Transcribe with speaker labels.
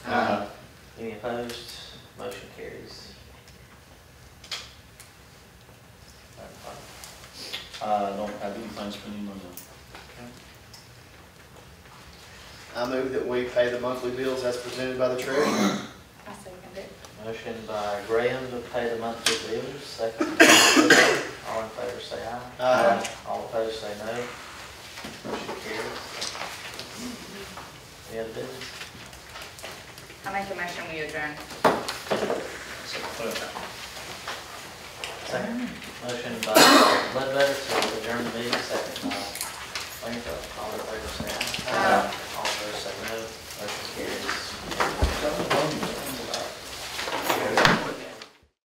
Speaker 1: opposed? Motion carries.
Speaker 2: I don't have anything spending money on.
Speaker 3: I move that we pay the monthly bills as presented by the treasurer.
Speaker 4: I second it.
Speaker 1: Motion by Graham to pay the monthly bills, second by Woodrow. All in favor say aye.
Speaker 3: Aye.
Speaker 1: All opposed say no. Motion carries. Any other business?
Speaker 4: I make a motion, we adjourn.
Speaker 1: Second. Motion by Ledbetter to adjourn the meeting, second by Langford. All in favor say aye.
Speaker 4: Aye.
Speaker 1: All opposed say no. Motion carries.